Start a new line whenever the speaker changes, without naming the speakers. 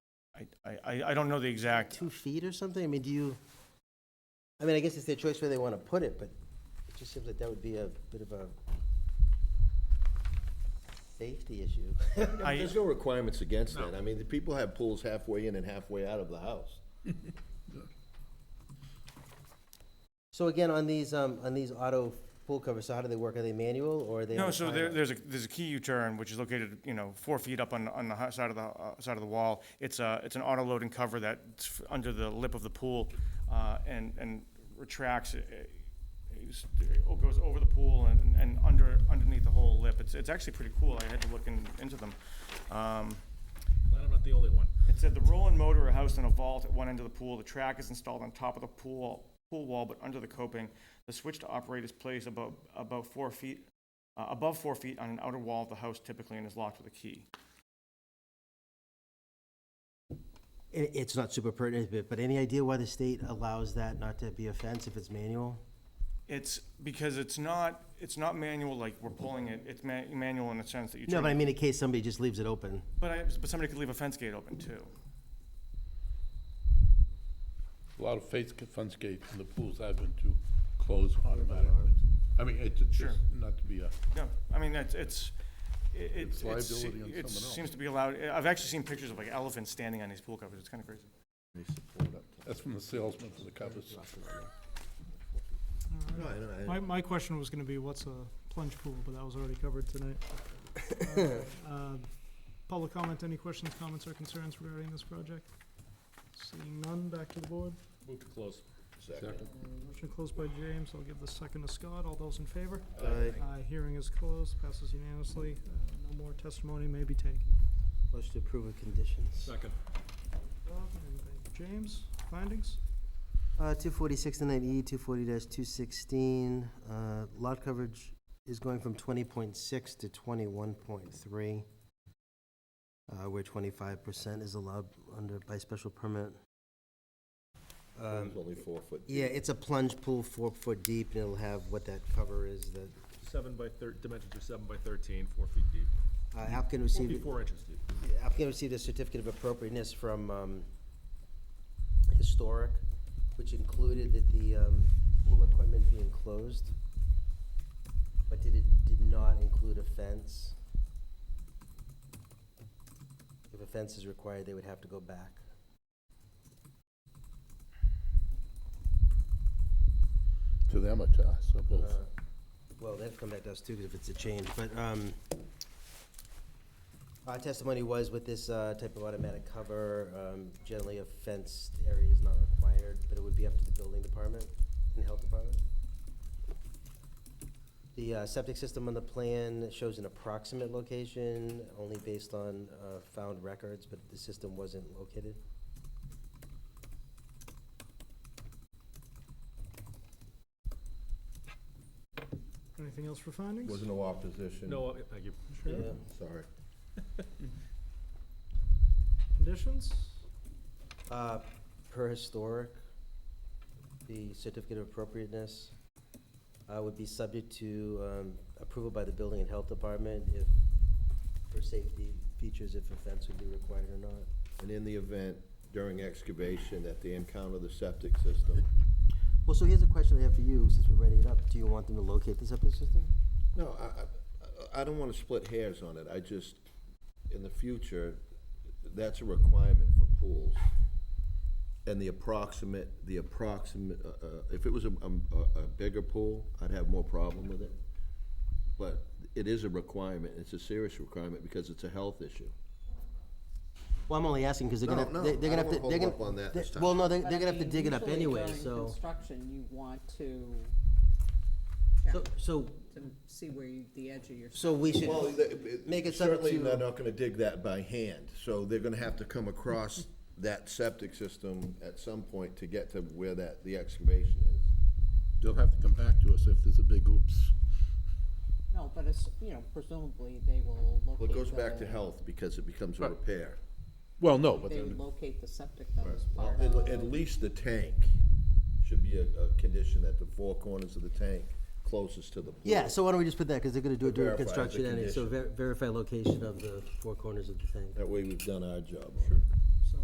I- I, I, I don't know the exact,
two feet or something? I mean, do you, I mean, I guess it's their choice where they want to put it, but it just seems like that would be a bit of a safety issue.
I-
There's no requirements against that. I mean, the people have pools halfway in and halfway out of the house.
So again, on these, um, on these auto pool covers, so how do they work? Are they manual or are they? on
no,
a
so there,
timer?
there's a, there's a key U-turn, which is located, you know, four feet up on, on the hi- side of the, uh, side of the wall. It's a, it's an auto loading cover that's f- under the lip of the pool, uh, and, and retracts, it, it goes over the pool and, and under, underneath the whole lip. It's, it's actually pretty cool, I had to look in, into them. Um,
Glad I'm not the only one.
It said the roll-in motor are housed in a vault at one end of the pool. The track is installed on top of the pool, pool wall, but under the coping. The switch to operate is placed about, about four feet, uh, above four feet on an outer wall of the house typically and is locked with a key.
It, it's not super pertinent, but, but any idea why the state allows that not to be a fence if it's manual?
It's because it's not, it's not manual like we're pulling it. It's ma- manual in the sense that you.
No,
turn-
but I mean, in case somebody just leaves it open.
But I, but somebody could leave a fence gate open too.
A lot of face funds gates in the pools I've been to close automatically. I mean, it's it's
Sure.
just not to be a,
No, I mean, it's, it's, it- it,
It's
it's,
liability on
it
someone else.
seems to be allowed. I've actually seen pictures of like elephants standing on these pool covers. It's kind of crazy.
that's from the salesman for the covers.
No, I know, I-
My, my question was gonna be, what's a plunge pool, but that was already covered tonight. Uh, Public comment, any questions, comments, or concerns regarding this project? Seeing none, back to the board.
Move to close.
Uh, Motion closed by James, I'll give the second to Scott, all those in favor?
Aye.
Aye, hearing is closed, passes unanimously, Uh, no more testimony may be taken.
Motion to approve with conditions.
Second.
Bob, and by James, findings?
Uh, two forty-six to nine E, two forty two sixteen, uh, lot coverage is going from twenty point six to twenty-one point three, uh, where twenty-five percent is allowed under, by special permit. Um,
It's only four foot.
yeah, it's a plunge pool, four foot deep, and it'll have what that cover is, that
Seven by thir, dimensions are seven by thirteen, four feet deep.
uh, applicant
Four
received.
feet, four inches deep.
applicant received a certificate of appropriateness from um, Historic, which included that the um, pool equipment be enclosed, but did it, did not include a fence. If a fence is required, they would have to go back.
To them or to us, or both.
Uh, Well, they've come back to us too, 'cause if it's a change, but, um, our testimony was with this, uh, type of automatic cover, um, generally a fenced area is not required, but it would be up to the building department and health department. The, uh, septic system on the plan shows an approximate location, only based on, uh, found records, but the system wasn't located.
Anything else for findings?
Was no opposition.
No, uh, thank you.
Sure.
Yeah.
Sorry.
Conditions?
Uh, Per historic, the certificate of appropriateness uh, would be subject to um, approval by the Building and Health Department if, for safety features, if a fence would be required or not.
And in the event during excavation that they encounter the septic system.
Well, so here's a question I have for you, since we're writing it up. Do you want them to locate the septic system?
No, I, I- I, I don't wanna split hairs on it. I just, in the future, that's a requirement for pools. And the approximate, the approximate, uh, uh, if it was a, um, a, a bigger pool, I'd have more problem with it. But it is a requirement. It's a serious requirement because it's a health issue.
Well, I'm only asking because they're
No,
gonna,
no,
they- they're gonna
I
have to,
don't
they're
wanna
gonna.
hold up on that
they-
this time.
Well, no, they-
But
they're
I
gonna have to
mean,
dig it up
usually
anyway,
during
so.
Construction, you want to,
So, so,
to see where you, the edge of your.
so we should,
Well, the- it-
Make it subject
certainly
to-
they're not gonna dig that by hand, so they're gonna have to come across that septic system at some point to get to where that, the excavation is.
They'll have to come back to us if there's a big oops.
No, but it's, you know, presumably they will locate.
Well, it goes back to
the-
health because it becomes a
Right.
repair.
Well, no, but
They
then,
locate the septic that was
Well,
part
At,
of.
at least the tank should be a, a condition that the four corners of the tank closest to the pool.
yeah, so why don't we just put that, because they're gonna do it during
Verify the
construction anyway, so ver- verify location of the four corners of the thing.
That way we've done our job. on it.